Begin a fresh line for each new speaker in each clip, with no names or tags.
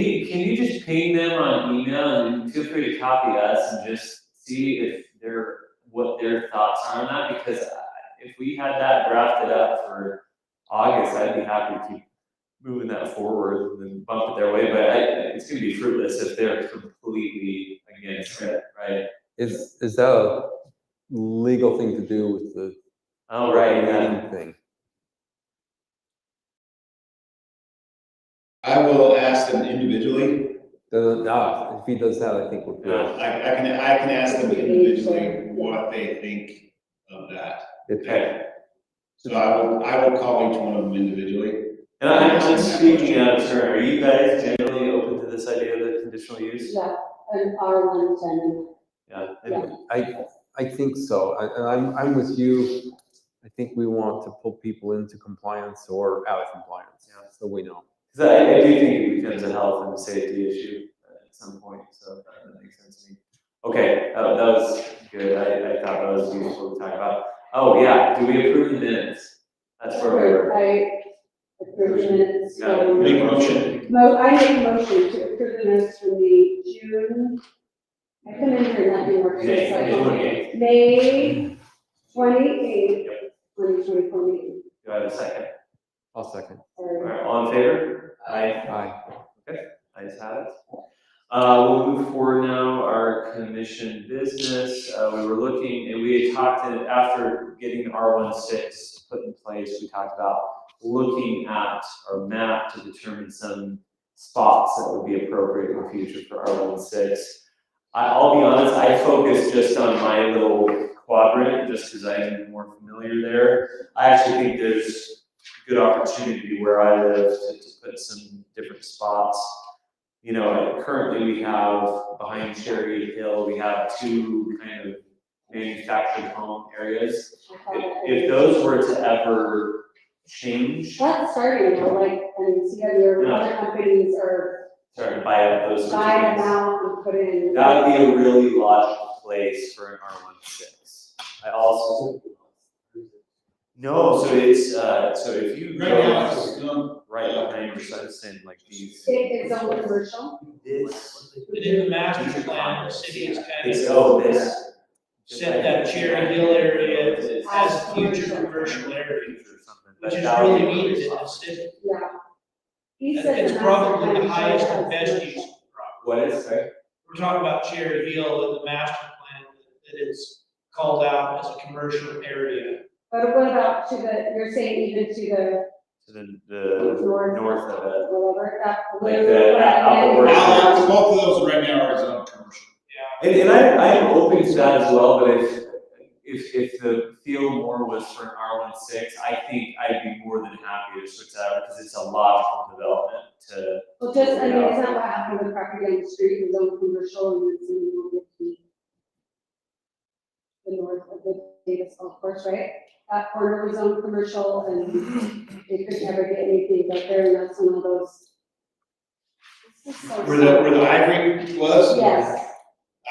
Hey, can you just ping them on email and feel free to copy us and just see if they're, what their thoughts are on that? Because I- if we had that drafted up for August, I'd be happy to keep moving that forward and then bump it their way, but I, it's gonna be fruitless if they're completely against it, right?
Is, is that a legal thing to do with the?
All right, yeah.
meeting Thing.
I will ask them individually.
Doesn't- ah, if he does that, I think we're good.
I, I can, I can ask them individually what they think of that.
It-
Okay,
So I will, I will call each one of them individually.
and I'm just speaking out of turn, are you guys generally open to this idea of the conditional use?
Yeah, an R one ten.
Yeah.
Yeah.
I, I think so. I, and I'm, I'm with you. I think we want to pull people into compliance or out of compliance,
Yeah.
so we know.
Because I, I do think it becomes a health and safety issue uh, at some point, so that that makes sense to me. Okay, uh, that was good, I, I thought that was useful to talk about. Oh, yeah, do we approve the minutes? That's where we were.
I approve the minutes from,
Yeah.
Make a motion.
Mo- I make a motion to approve the minutes from the June. I come in here not being working, so I don't. May twenty-eighth, twenty twenty-four meeting.
Do I have a second?
I'll second.
All
Sorry.
right, all in favor? Aye.
Aye.
I just have it. Uh, we'll move forward now, our commission business, uh, we were looking, and we had talked, that after getting R 16 put in place, we talked about looking at our map to determine some spots that would be appropriate in the future for R 16 I, I'll be honest, I focused just on my little quadrant, just because I'm more familiar there. I actually think there's good opportunity where I live to, to put some different spots you know, currently we have behind Cherry Hill, we have two kind of manufactured home areas.
Oh,
If, if those were to ever change,
That's starting, though, like, and see other,
Yeah.
other companies are
sorry, to buy up those. sorts of
buying them
things.
out and put in.
That would be a really logical place for an R one six. I also. No, so it's, uh, so if you
Right now, it's
go
just, um,
right behind your son, like these,
It is all commercial.
this,
Within the master plan, the city has kind
it's,
of
oh, this.
set that Cherry Hill area as future commercial area, which is really needed in the city.
Yeah. He said
It's
the master
probably
plan
the highest and
has
best
commercial.
use of the property.
What is, sorry?
We're talking about Cherry Hill and the master plan that is called out as a commercial area.
But what about to the, you're saying even to the
To the, the
north,
north of it.
whatever, that.
Like
blue,
the-
what I
Apple
meant.
Orchard.
Al- both of those right now are zone commercial.
And, and I, I am open to that as well, but if, if, if the field more was for an R one six, I think I'd be more than happy to switch that out because it's a logical development to.
Well, just, I mean, it's not what happened with property on the street, it was all commercial and it's in the north of the the north of the Davis golf course, right? That corner was on commercial and they could never get anything but there and that's one of those. This is so
Where the, where the ivory was?
sad. Yes, um,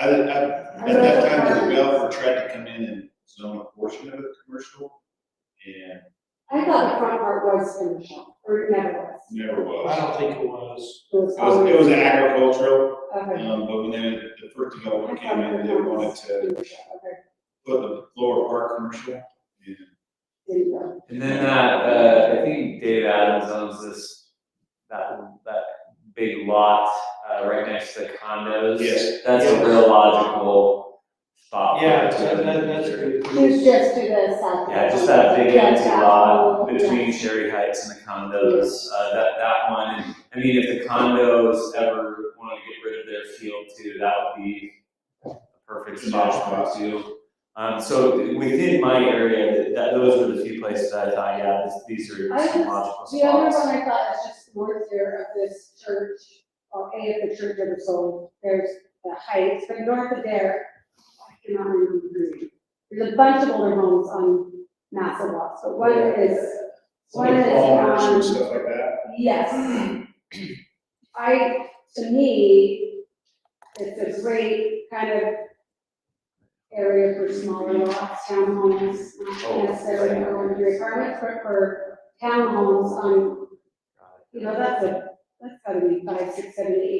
I, I, at that time, the developer tried to come in and zone a portion of it commercial, and
I thought the front part was commercial, or it never was.
never
I
was.
don't think it was.
It was
It was, it was
always-
agricultural,
Okay.
um, but when they, the first
I
developer
thought
came in, they
it was
wanted to
commercial, Okay,
put the lower part commercial, and
didn't know.
And then that, uh, I think Dave Adams owns this, that, that big lot, uh, right next to the condos.
Yes.
That's a real logical spot.
Yeah, that, that, that's
It
good.
was just to the south.
Yeah, just that big
Yeah,
empty
that
lot
whole- yeah.
between Sherry Heights and the condos, uh, that, that one. I mean, if the condos ever wanted to get rid of their field too, that would be a perfect spot for it too. Um, so within my area, that- that, those were the few places that I thought, yeah, this- these are
I
some
was-
logical
The other
spots.
one I thought is just north here of this church, or A of the church of the soul, there's the heights, but north of there, I cannot remember the name. There's a bunch of older homes on massive lots, but one is, one
like
is
farmers and
on,
stuff like that.
yes. I, to me, it's a great kind of area for smaller lots, townhomes,
Oh,
not necessarily
yeah.
for your apartments, but for townhomes on um, you know, that's a that's gotta be five, six, seven, eight